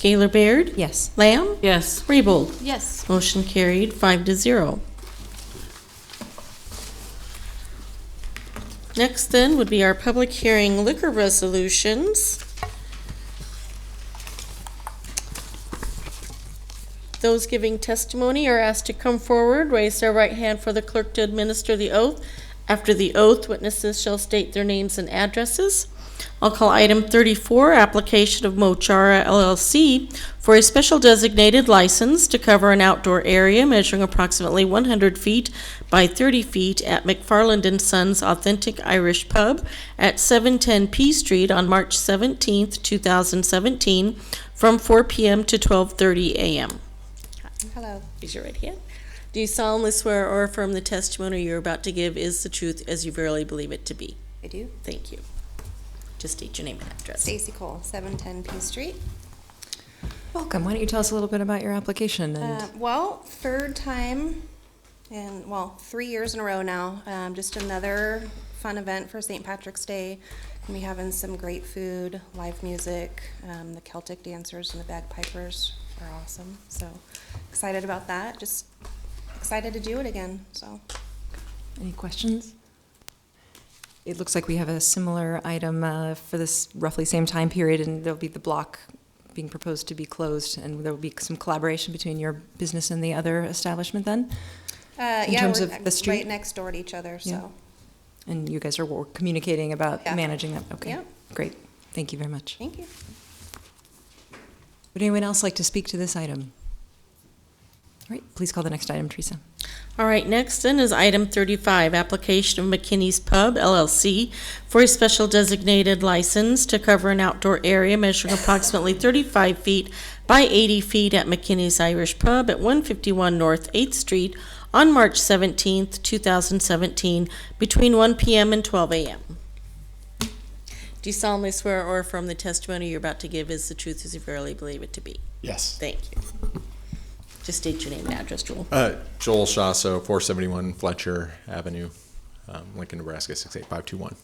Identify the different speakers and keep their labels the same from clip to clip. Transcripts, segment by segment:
Speaker 1: Gaylor Baird?
Speaker 2: Yes.
Speaker 1: Lamb?
Speaker 3: Yes.
Speaker 1: Raybold?
Speaker 2: Yes.
Speaker 1: Motion carried, five to zero. Next then would be our public hearing liquor resolutions. Those giving testimony are asked to come forward, raise their right hand for the clerk to administer the oath. After the oath, witnesses shall state their names and addresses. I'll call item thirty-four, application of Mochara LLC for a special designated license to cover an outdoor area measuring approximately one hundred feet by thirty feet at McFarland and Sons Authentic Irish Pub at seven ten P Street on March seventeenth, two thousand seventeen, from four PM to twelve thirty AM.
Speaker 2: Hello.
Speaker 1: Raise your right hand. Do you solemnly swear or affirm the testimony you're about to give is the truth as you verily believe it to be?
Speaker 2: I do.
Speaker 1: Thank you. Just state your name and address.
Speaker 2: Stacy Cole, 710 P Street.
Speaker 4: Welcome. Why don't you tell us a little bit about your application and
Speaker 2: Uh, well, third time in, well, three years in a row now. Um, just another fun event for St. Patrick's Day. Gonna be having some great food, live music. Um, the Celtic dancers and the bagpipers are awesome. So excited about that. Just excited to do it again. So
Speaker 4: any questions? It looks like we have a similar item uh, for this roughly same time period, and there'll be the block being proposed to be closed, and there will be some collaboration between your business and the other establishment then?
Speaker 2: uh,
Speaker 4: In
Speaker 2: yeah,
Speaker 4: terms
Speaker 2: we're
Speaker 4: of
Speaker 2: uh,
Speaker 4: the street?
Speaker 2: right next door to each other.
Speaker 4: Yeah.
Speaker 2: So
Speaker 4: And you guys are wor- communicating about
Speaker 2: Yeah.
Speaker 4: managing that? Okay,
Speaker 2: Yeah.
Speaker 4: great. Thank you very much.
Speaker 2: thank you.
Speaker 4: Would anyone else like to speak to this item? All right, please call the next item, Teresa.
Speaker 1: All right, next then is item thirty-five, application of McKinney's Pub LLC for a special designated license to cover an outdoor area measuring approximately thirty-five feet by eighty feet at McKinney's Irish Pub at one fifty-one North Eighth Street on March seventeenth, two thousand seventeen, between one PM and twelve AM. Do you solemnly swear or affirm the testimony you're about to give is the truth as you verily believe it to be?
Speaker 5: Yes.
Speaker 1: Thank you. Just state your name and address, Joel.
Speaker 5: Uh, Joel Shasso, 471 Fletcher Avenue, um, Lincoln, Nebraska, 68521.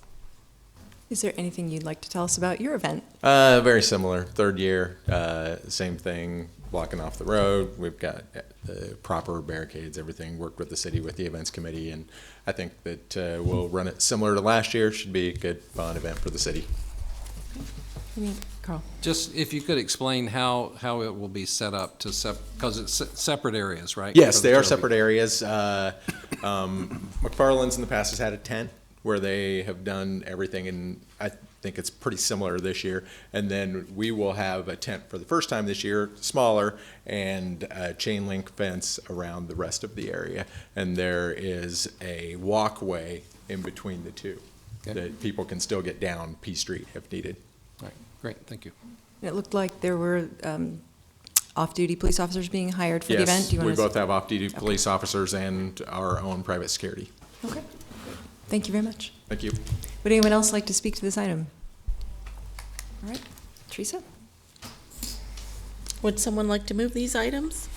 Speaker 4: Is there anything you'd like to tell us about your event?
Speaker 5: Uh, very similar. Third year, uh, same thing, blocking off the road. We've got uh, the proper barricades, everything. Worked with the city, with the events committee, and I think that uh, we'll run it similar to last year. Should be a good, fun event for the city.
Speaker 4: Any- Carl?
Speaker 6: Just if you could explain how, how it will be set up to sep, because it's se- separate areas, right?
Speaker 5: Yes,
Speaker 6: For the
Speaker 5: they are
Speaker 6: Turtle
Speaker 5: separate
Speaker 6: Beach.
Speaker 5: areas. Uh, um, McFarland's in the past has had a tent where they have done everything, and I think it's pretty similar this year. And then we will have a tent for the first time this year, smaller, and a chain link fence around the rest of the area. And there is a walkway in between the two
Speaker 6: Okay.
Speaker 5: that people can still get down P Street if needed.
Speaker 6: Right. Great, thank you.
Speaker 4: It looked like there were um, off-duty police officers being hired for the event.
Speaker 5: Yes,
Speaker 4: Do you
Speaker 5: we
Speaker 4: want
Speaker 5: both
Speaker 4: to?
Speaker 5: have off-duty police officers and our own private security.
Speaker 4: Okay. Thank you very much.
Speaker 5: Thank you.
Speaker 4: Would anyone else like to speak to this item? All right, Teresa?
Speaker 1: Would someone like to move these items?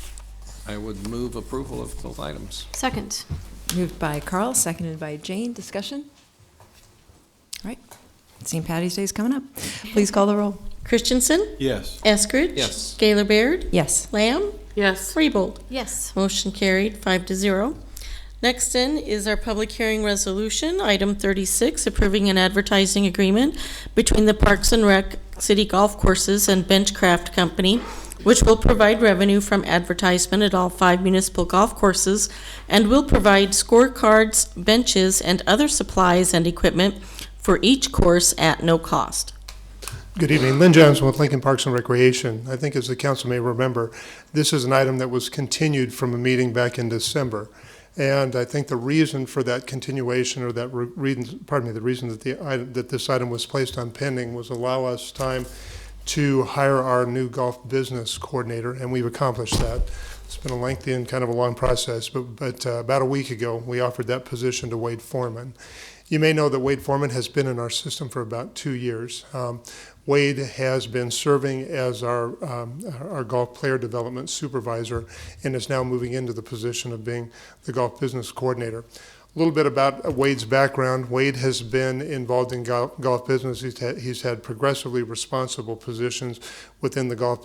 Speaker 6: I would move approval of both items.
Speaker 7: Second.
Speaker 4: Moved by Carl, seconded by Jane. Discussion? All right, St. Patty's Day is coming up. Please call the roll.
Speaker 1: Christensen?
Speaker 8: Yes.
Speaker 1: Eskridge?
Speaker 6: Yes.
Speaker 1: Gaylor Baird?
Speaker 4: Yes.
Speaker 1: Lamb?
Speaker 3: Yes.
Speaker 1: Raybold?
Speaker 7: Yes.
Speaker 1: Motion carried, five to zero. Next in is our public hearing resolution, item thirty-six, approving an advertising agreement between the Parks and Rec City Golf Courses and Benchcraft Company, which will provide revenue from advertisement at all five municipal golf courses and will provide scorecards, benches, and other supplies and equipment for each course at no cost.
Speaker 9: Good evening. Lynn Johnson with Lincoln Parks and Recreation. I think as the council may remember, this is an item that was continued from a meeting back in December. And I think the reason for that continuation or that re- reason, pardon me, the reason that the item, that this item was placed on pending was allow us time to hire our new golf business coordinator, and we've accomplished that. It's been a lengthy and kind of a long process, but, but uh, about a week ago, we offered that position to Wade Foreman. You may know that Wade Foreman has been in our system for about two years. Um, Wade has been serving as our, um, our golf player development supervisor and is now moving into the position of being the golf business coordinator. A little bit about Wade's background. Wade has been involved in golf, golf business. He's had, he's had progressively responsible positions within the golf